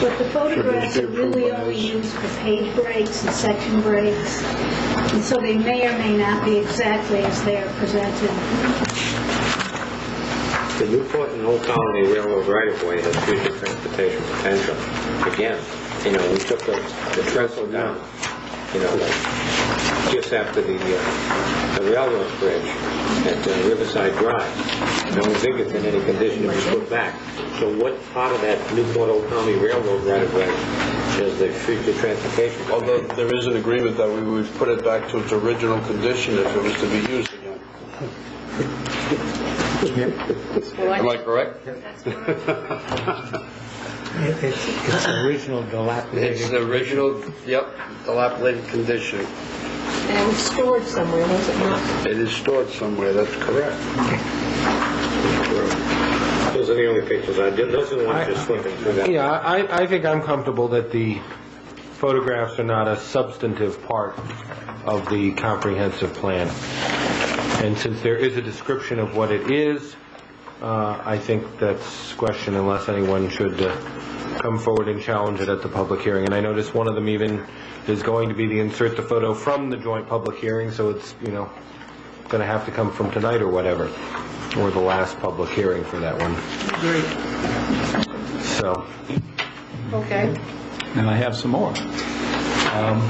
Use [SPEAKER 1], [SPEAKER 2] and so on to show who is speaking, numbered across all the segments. [SPEAKER 1] But the photographs are really only used for page breaks and section breaks, and so they may or may not be exactly as they are presented.
[SPEAKER 2] The Newport and Old Colony Railroad right-of-way has future transportation potential. Again, you know, we took the the trestle down, you know, like, just after the uh, the railroad bridge at uh, Riverside Drive. No bigger than any condition it was put back. So what part of that Newport Old Colony Railroad right-of-way is the future transportation?
[SPEAKER 3] Although there is an agreement that we would put it back to its original condition if it was to be used again. Am I correct?
[SPEAKER 4] It's it's original
[SPEAKER 5] It's
[SPEAKER 4] dilapidated.
[SPEAKER 5] the original, yep, dilapidated condition.
[SPEAKER 6] And it was stored somewhere, was it not?
[SPEAKER 5] It is stored somewhere, that's correct.
[SPEAKER 2] Those are the only pictures I did, those are the ones just flipping through that.
[SPEAKER 4] Yeah, I, I think I'm comfortable that the photographs are not a substantive part of the comprehensive plan. And since there is a description of what it is, uh, I think that's question unless anyone should uh, come forward and challenge it at the public hearing. And I noticed one of them even is going to be the insert the photo from the joint public hearing, so it's, you know, going to have to come from tonight or whatever, or the last public hearing for that one. So,
[SPEAKER 6] Okay.
[SPEAKER 7] and I have some more. Um,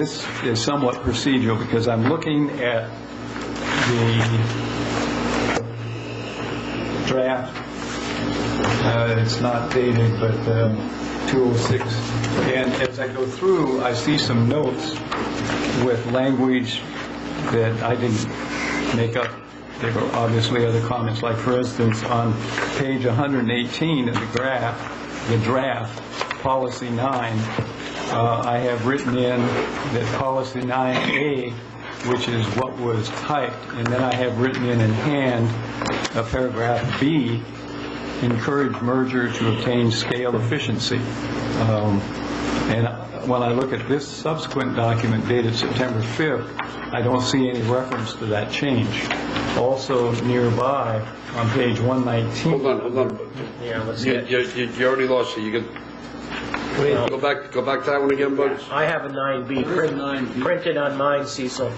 [SPEAKER 7] This is somewhat procedural because I'm looking at the draft. Uh, It's not dated, but um, 206. And as I go through, I see some notes with language that I didn't make up. There were obviously other comments, like for instance, on page 118 of the graph, the draft, policy nine, uh, I have written in that policy 9A, which is what was typed, and then I have written in in hand a paragraph B, encourage merger to obtain scale efficiency. Um, And when I look at this subsequent document dated September 5th, I don't see any reference to that change. Also nearby, on page 119...
[SPEAKER 5] Hold on, hold on.
[SPEAKER 8] Yeah, let's
[SPEAKER 5] You,
[SPEAKER 8] get,
[SPEAKER 5] you, you- you already lost it, you can, go back, go back to that one again, Bugs?
[SPEAKER 8] I have a 9B print- printed on mine, Cecil. It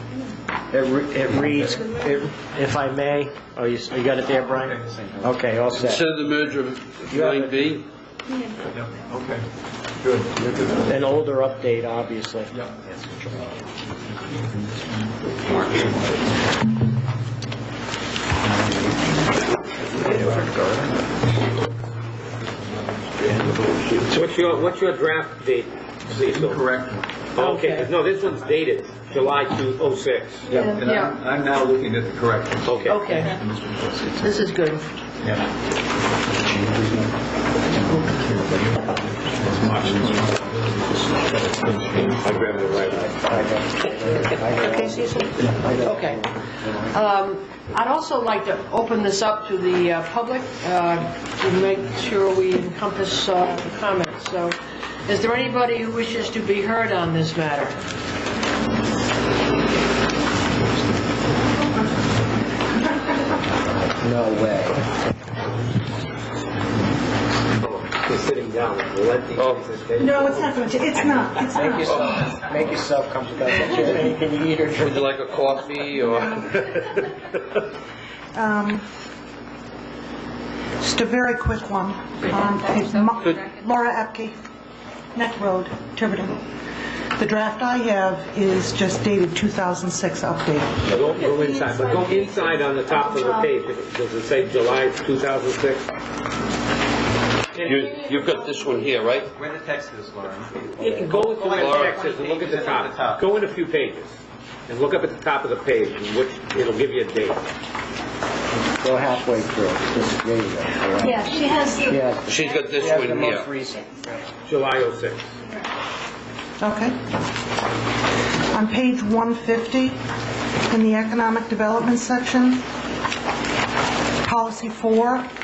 [SPEAKER 8] re- it reads, it- if I may, oh, you s- you got it there, Brian? Okay, all set.
[SPEAKER 5] Consider the merger of line B,
[SPEAKER 7] Okay, good.
[SPEAKER 8] An older update, obviously.
[SPEAKER 2] What's your, what's your draft date, Cecil?
[SPEAKER 7] Correct.
[SPEAKER 2] Okay, no, this one's dated July 206.
[SPEAKER 7] And I'm I'm now looking at the correction.
[SPEAKER 2] Okay.
[SPEAKER 6] Okay, this is good.
[SPEAKER 2] I grabbed it right away.
[SPEAKER 6] Okay, Cecil? Okay. Um, I'd also like to open this up to the uh, public uh, to make sure we encompass uh, the comments. So is there anybody who wishes to be heard on this matter?
[SPEAKER 2] He's sitting down. Let the-
[SPEAKER 5] Oh,
[SPEAKER 1] No, it's not going to, it's not, it's
[SPEAKER 8] Make
[SPEAKER 1] not.
[SPEAKER 8] yourself, make yourself comfortable. Can you eat or drink?
[SPEAKER 5] would you like a coffee, or?
[SPEAKER 9] Um, Just a very quick one. Um, it's Ma- Laura Epke, Neck Road, Tiverton. The draft I have is just dated 2006 update.
[SPEAKER 2] Don't go inside, but go inside on the top of the page. Does it say July 2006?
[SPEAKER 5] You, you've got this one here, right?
[SPEAKER 10] Where the text is, Lauren?
[SPEAKER 2] You can go into the
[SPEAKER 5] Laura.
[SPEAKER 2] Texas and look at the
[SPEAKER 10] The
[SPEAKER 2] top.
[SPEAKER 10] top.
[SPEAKER 2] Go in a few pages and look up at the top of the page, and which, it'll give you a date.
[SPEAKER 11] Go halfway through, just, there you go, all right?
[SPEAKER 1] Yeah, she has the...
[SPEAKER 11] Yeah,
[SPEAKER 5] She's got this
[SPEAKER 8] You have the
[SPEAKER 5] one
[SPEAKER 8] most
[SPEAKER 5] here.
[SPEAKER 8] recent.
[SPEAKER 2] July 06.
[SPEAKER 9] Okay. On page 150, in the Economic Development section, Policy 4,